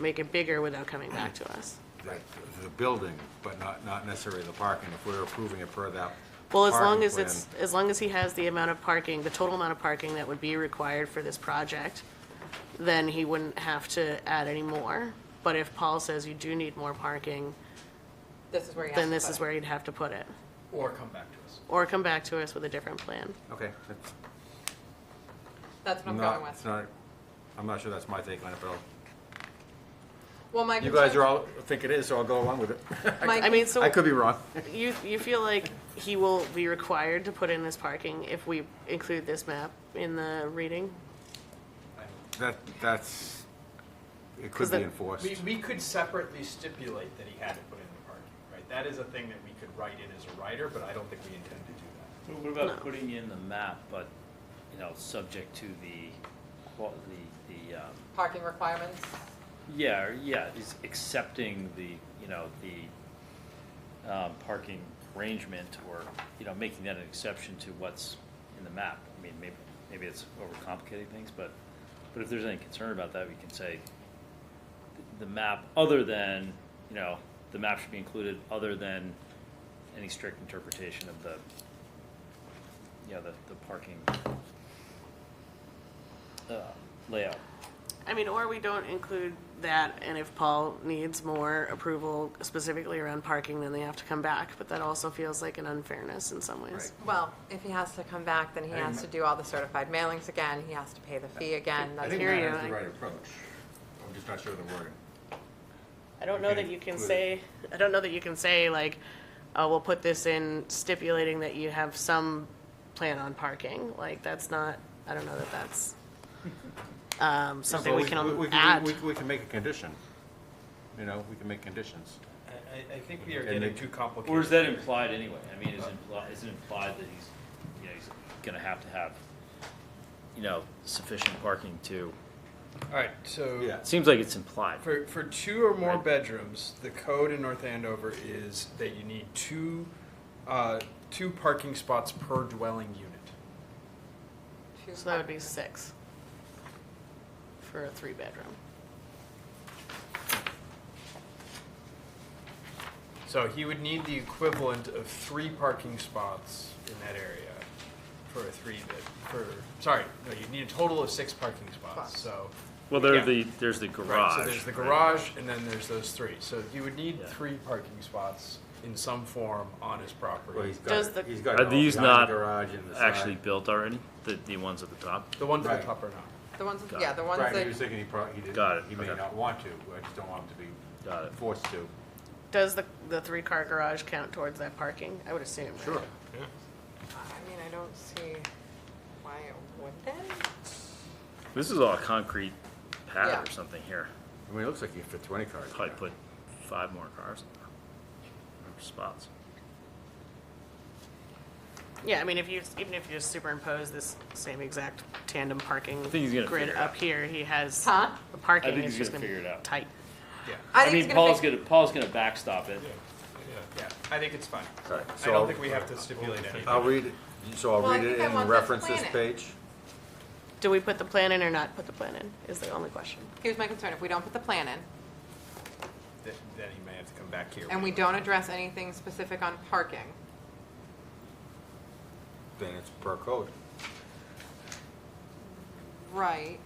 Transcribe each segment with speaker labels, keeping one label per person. Speaker 1: make it bigger without coming back to us.
Speaker 2: Right. The building, but not, not necessarily the parking, if we're approving it per that.
Speaker 1: Well, as long
Speaker 2: parking
Speaker 1: as it's,
Speaker 2: plan,
Speaker 1: as long as he has the amount of parking, the total amount of parking that would be required for this project, then he wouldn't have to add any more. But if Paul says you do need more parking,
Speaker 3: This is where you have
Speaker 1: then
Speaker 3: to
Speaker 1: this
Speaker 3: put
Speaker 1: is
Speaker 3: it.
Speaker 1: where you'd have to put it.
Speaker 4: Or come back to us.
Speaker 1: Or come back to us with a different plan.
Speaker 2: Okay, that's
Speaker 3: That's what I'm
Speaker 2: not,
Speaker 3: going
Speaker 2: it's
Speaker 3: with.
Speaker 2: not, I'm not sure that's my take on it, but I'll-
Speaker 3: Well, my
Speaker 2: you guys
Speaker 3: concern-
Speaker 2: are all, think it is, so I'll go along with it.
Speaker 3: my-
Speaker 1: I mean, so.
Speaker 2: I could be wrong.
Speaker 1: You, you feel like he will be required to put in this parking if we include this map in the reading?
Speaker 2: That, that's, it
Speaker 1: Cause
Speaker 2: could be
Speaker 1: the-
Speaker 2: enforced.
Speaker 4: We, we could separately stipulate that he had to put in the parking, right? That is a thing that we could write in as a writer, but I don't think we intend to do that.
Speaker 5: Well, What
Speaker 1: No.
Speaker 5: about putting in the map, but, you know, subject to the, qual- the, the, um,
Speaker 3: Parking requirements,
Speaker 5: yeah, or- yeah, is accepting the, you know, the, um, parking arrangement or, you know, making that an exception to what's in the map. I mean, maybe, maybe it's overcomplicating things, but, but if there's any concern about that, we can say the map, other than, you know, the map should be included, other than any strict interpretation of the, you know, the, the parking, uh, layout.
Speaker 1: I mean, or we don't include that, and if Paul needs more approval specifically around parking, then they have to come back, but that also feels like an unfairness in some ways.
Speaker 3: well, if he has to come back, then he has to do all the certified mailings again, he has to pay the fee again.
Speaker 2: I
Speaker 3: That's
Speaker 2: think
Speaker 1: hear
Speaker 2: that
Speaker 1: you,
Speaker 2: is
Speaker 1: I-
Speaker 2: the right approach. I'm just not sure of the wording.
Speaker 1: I don't know
Speaker 2: Okay,
Speaker 1: that you can
Speaker 2: include it.
Speaker 1: say, I don't know that you can say, like, uh, we'll put this in stipulating that you have some plan on parking, like, that's not, I don't know that that's, um, something
Speaker 2: So
Speaker 1: we can
Speaker 2: we-
Speaker 1: add.
Speaker 2: we- We can make a condition, you know, we can make conditions.
Speaker 4: I, I, I think we are
Speaker 2: Okay,
Speaker 4: getting
Speaker 2: Nick.
Speaker 4: too complicated.
Speaker 5: Or is that implied anyway? I mean, is it implied, is it implied that he's, you know, he's gonna have to have, you know, sufficient parking to,
Speaker 4: All right, so.
Speaker 2: Yeah.
Speaker 5: it seems like it's implied.
Speaker 4: For, for two or more
Speaker 5: Right.
Speaker 4: bedrooms, the code in North Andover is that you need two, uh, two parking spots per dwelling unit.
Speaker 3: two
Speaker 1: So that would
Speaker 3: parking-
Speaker 1: be six for a three-bedroom.
Speaker 4: So he would need the equivalent of three parking spots in that area for a three bed, for, sorry, no, you'd need a total of six parking spots,
Speaker 3: Spots.
Speaker 4: so.
Speaker 5: Well,
Speaker 4: there are Yeah.
Speaker 5: the,
Speaker 4: the-
Speaker 5: there's the
Speaker 4: Right,
Speaker 5: garage.
Speaker 4: so there's the garage and then there's those three. So you would need
Speaker 5: Yeah.
Speaker 4: three parking spots in some form on his
Speaker 2: Well,
Speaker 4: property.
Speaker 2: he's got
Speaker 1: Does
Speaker 2: it.
Speaker 1: the-
Speaker 2: He's got it
Speaker 5: Are
Speaker 2: all
Speaker 5: these
Speaker 2: behind the
Speaker 5: not
Speaker 2: garage and the side.
Speaker 5: Actually built already, the, the ones at the top?
Speaker 4: The ones at
Speaker 2: Right.
Speaker 4: the top are not.
Speaker 3: The ones,
Speaker 5: Got
Speaker 3: yeah,
Speaker 5: it.
Speaker 3: the ones
Speaker 2: Right,
Speaker 3: that,
Speaker 2: he was thinking he probably, he didn't.
Speaker 5: Got it,
Speaker 2: He may
Speaker 5: okay.
Speaker 2: not want to, I just don't want him to
Speaker 5: Got
Speaker 2: be
Speaker 5: it.
Speaker 2: forced to.
Speaker 1: Does the, the three-car garage count towards that parking? I would assume. right?
Speaker 3: I mean, I don't see why it wouldn't.
Speaker 5: This is all a concrete
Speaker 3: Yeah.
Speaker 5: pad or something here.
Speaker 2: I mean, it looks like he can fit twenty cars. in
Speaker 5: Probably
Speaker 2: there.
Speaker 5: put five more cars in there, or spots.
Speaker 1: Yeah, I mean, if you, even if you just superimpose this same exact tandem parking
Speaker 5: think he's gonna
Speaker 1: grid
Speaker 5: figure it out.
Speaker 1: up here, he has.
Speaker 3: Huh?
Speaker 1: The parking
Speaker 5: I think
Speaker 1: is
Speaker 5: he's
Speaker 1: just
Speaker 5: gonna
Speaker 1: gonna be
Speaker 5: figure it out.
Speaker 1: tight.
Speaker 4: Yeah,
Speaker 5: I
Speaker 3: think
Speaker 5: mean,
Speaker 3: it's
Speaker 5: Paul's
Speaker 3: be-
Speaker 5: gonna, Paul's gonna backstop it.
Speaker 4: yeah, I think it's fine.
Speaker 2: Right,
Speaker 4: I
Speaker 2: so I'll-
Speaker 4: don't think we have to stipulate anything.
Speaker 2: I'll read it, so I'll
Speaker 3: Well, I
Speaker 2: read it
Speaker 3: think I want
Speaker 2: and
Speaker 3: this
Speaker 2: reference this
Speaker 3: planet.
Speaker 2: page.
Speaker 1: Do we put the plan in or not put the plan in, is the only question.
Speaker 3: Here's my concern, if we don't put the plan in,
Speaker 4: Th- Then he may have to come back here.
Speaker 3: and we don't address anything specific on parking,
Speaker 2: Then it's per code.
Speaker 3: right,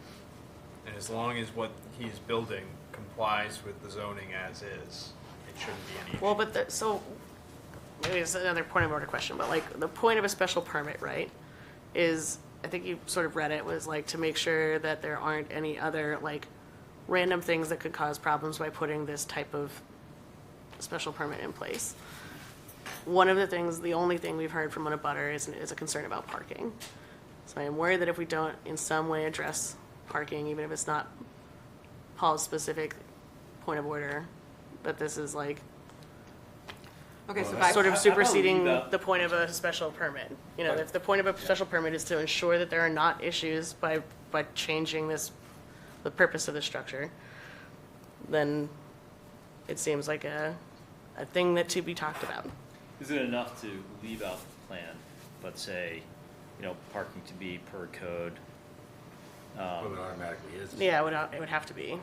Speaker 4: And as long as what he's building complies with the zoning as is, it shouldn't be any.
Speaker 1: Well, but the, so, maybe it's another point of order question, but like, the point of a special permit, right, is, I think you sort of read it, was like to make sure that there aren't any other, like, random things that could cause problems by putting this type of special permit in place. One of the things, the only thing we've heard from one of Butter is, is a concern about parking. So I am worried that if we don't in some way address parking, even if it's not Paul's specific point of order, that this is like
Speaker 3: okay, so
Speaker 2: Well,
Speaker 3: back.
Speaker 1: sort of
Speaker 5: I- I probably
Speaker 1: superseding
Speaker 5: leave out-
Speaker 1: the point of a special permit. You know, if the point of a special permit is to ensure that there are not issues by, by changing this, the purpose of the structure, then it seems like a, a thing that to be talked about.
Speaker 5: Is it enough to leave out the plan, but say, you know, parking to be per code? Um,
Speaker 2: Well, it automatically is, right?
Speaker 1: Yeah, it would, it would have to be.